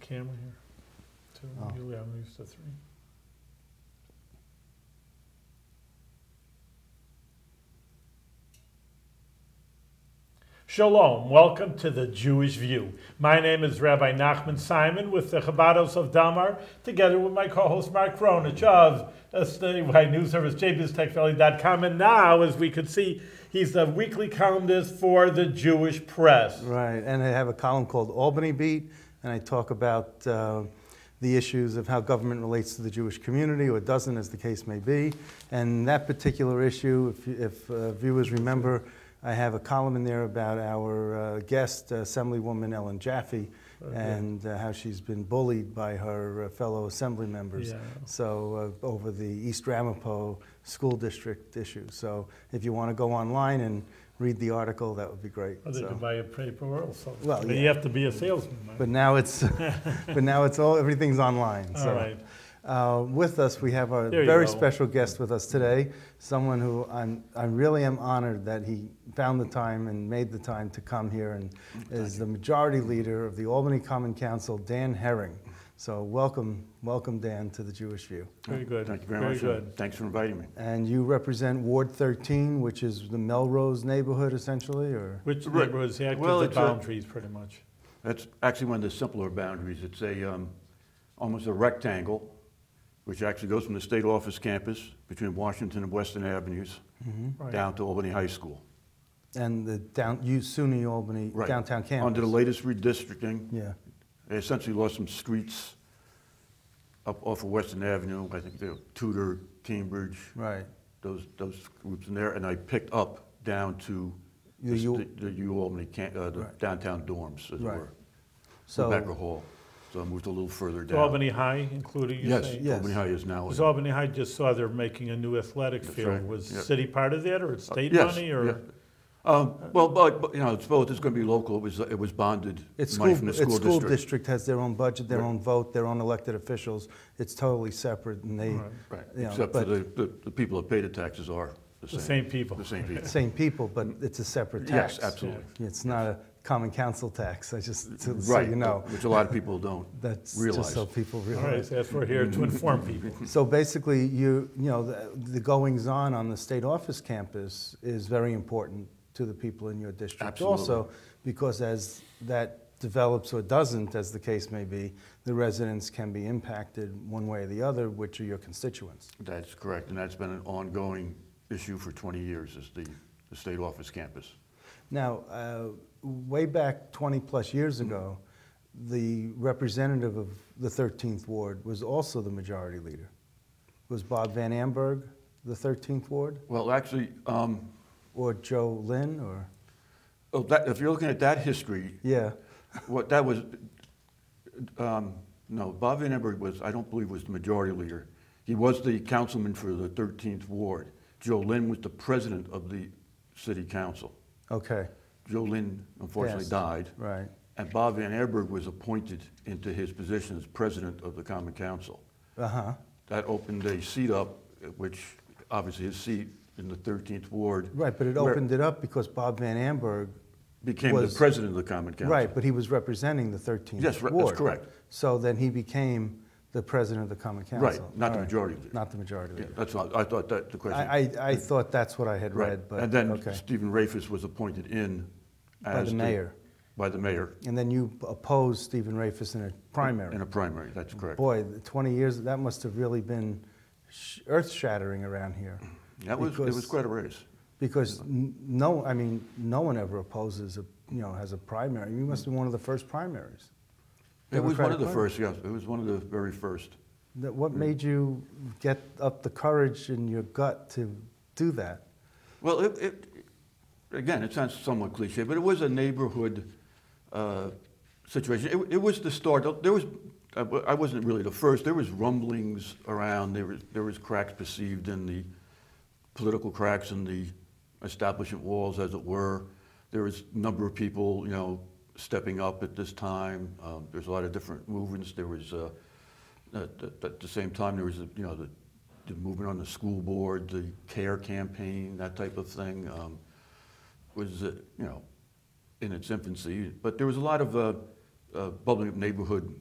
camera here? Two, Oh. usually I'm used to three. Shalom, welcome to the Jewish View. My name is Rabbi Nachman Simon with the Chabados of Damar, together with my co-host Mark Kronich of SDY News Service, jbiztechvalley.com, and now, as we could see, he's the weekly columnist for the Jewish Press. Right, and I have a column called Albany Beat, and I talk about uh, the issues of how government relates to the Jewish community, or doesn't, as the case may be. And that particular issue, if, you- if uh, viewers remember, I have a column in there about our uh, guest, Assemblywoman Ellen Jaffe, Okay. and uh, how she's been bullied by her uh, fellow assembly members. Yeah. So, uh, over the East Ramapo School District issue. So, if you want to go online and read the article, that would be great. Or they So- could buy a paper or something. Well, But you yeah. have to be a salesman, Mike. But now it's, but now it's all, everything's online. All So right. uh, with us, we have our There you very go. special guest with us today, someone who I'm, I really am honored that he found the time and made the time to come here and is the majority leader of the Albany Common Council, Dan Herring. So welcome, welcome Dan to the Jewish View. Very good. Thank you very much. Very and good. Thanks for inviting me. And you represent Ward 13, which is the Melrose neighborhood essentially, or? Which Right. neighborhoods act Well, as the it's a- boundaries, pretty much? That's actually one of the simpler boundaries. It's a, um, almost a rectangle, which actually goes from the state office campus between Washington and Western Avenues Right. Hmm? down to Albany High School. And the down, you SUNY Albany Right. downtown campus? Under the latest redistricting, Yeah. they essentially lost some streets up off of Western Avenue. I think they were Tudor, Cambridge, Right. those, those groups in there. And I picked up down to The the U- st- the U Albany, camp- uh, the Right. downtown dorms, as it Right. were. So, Rebecca Hall. So I moved a little further To down. Albany High included, you Yes, say? yeah. Yes. Albany High is now. Because Albany High just saw they're making a new athletic That's field. right, Was yeah. Uh, city part of that, or it's state Yes, money, or? yeah. Um, Well, but, but, you know, it's both, it's going to be local, it was, it was bonded it's money school, from the it's school school district. district has their own budget, their Right. own vote, their own elected officials. It's totally separate and they, Right. Right, you know, except for but- the, the the people that pay the taxes are the The same. same people. The same people. same people, but it's a separate tax. Yes, absolutely. It's not a common council tax, I just, to- so Right, you know. which a lot of people don't That's just realize. so people All right, realize. so that's what we're here to inform people. So basically, you, you know, the- the goings-on on the state office campus is very important to the people in your district Absolutely. also, because as that develops or doesn't, as the case may be, the residents can be impacted one way or the other, which are your constituents. That's correct, and that's been an ongoing issue for 20 years, is the, the state office campus. Now, uh, way back 20-plus years ago, the representative of the 13th Ward was also the majority leader. Was Bob Van Amberg the 13th Ward, Well, actually, um, or Joe Lynn, or, oh, that, if you're looking at that history, yeah? What that was, um, no, Bob Van Emberg was, I don't believe was the majority leader. He was the councilman for the 13th ward. Joe Lynn was the president of the city council. Okay, Joe Lynn unfortunately Passed. died, right. and Bob Van Emberg was appointed into his position as president of the common council. Uh-huh, That opened a seat up, which obviously his seat in the 13th ward. right, but it where- opened it up because Bob Van Amberg, Became the was- president of the common council. right, but he was representing the 13th Yes, right, Ward. that's correct. So then he became the president of the common council. not the All right, majority leader. Not the majority Yeah, leader. That's what, I thought that, the question. I, I, I thought that's what I had Right, read, but, and then okay. Stephen Rafus was appointed in By as the mayor. by the mayor And then you opposed Stephen Rafis in a primary. in a primary. That's correct. Boy, the 20 years, that must have really been sh- earth-shattering around here. that was it was because- quite a race. Because n- no, I mean, no one ever opposes, a you know, has a primary. You must be one of the first primaries. It was one Democratic of the primary. first. Yes, it was one of the very first. That what made you get up the courage in your gut to do that? Well, it, it again, it sounds somewhat cliche, but it was a neighborhood uh, situation. It, it was the start. There was I wa- I wasn't really the first. There was rumblings around. There was there was cracks perceived in the political cracks in the establishment walls, as it were. There was a number of people, you know, stepping up at this time. Um, There's a lot of different movements. There was, uh, at the- at the same time, there was, you know, the the movement on the school board, the CARE campaign, that type of thing, um, was, uh, you know, in its infancy. But there was a lot of uh, uh, bubbling up neighborhood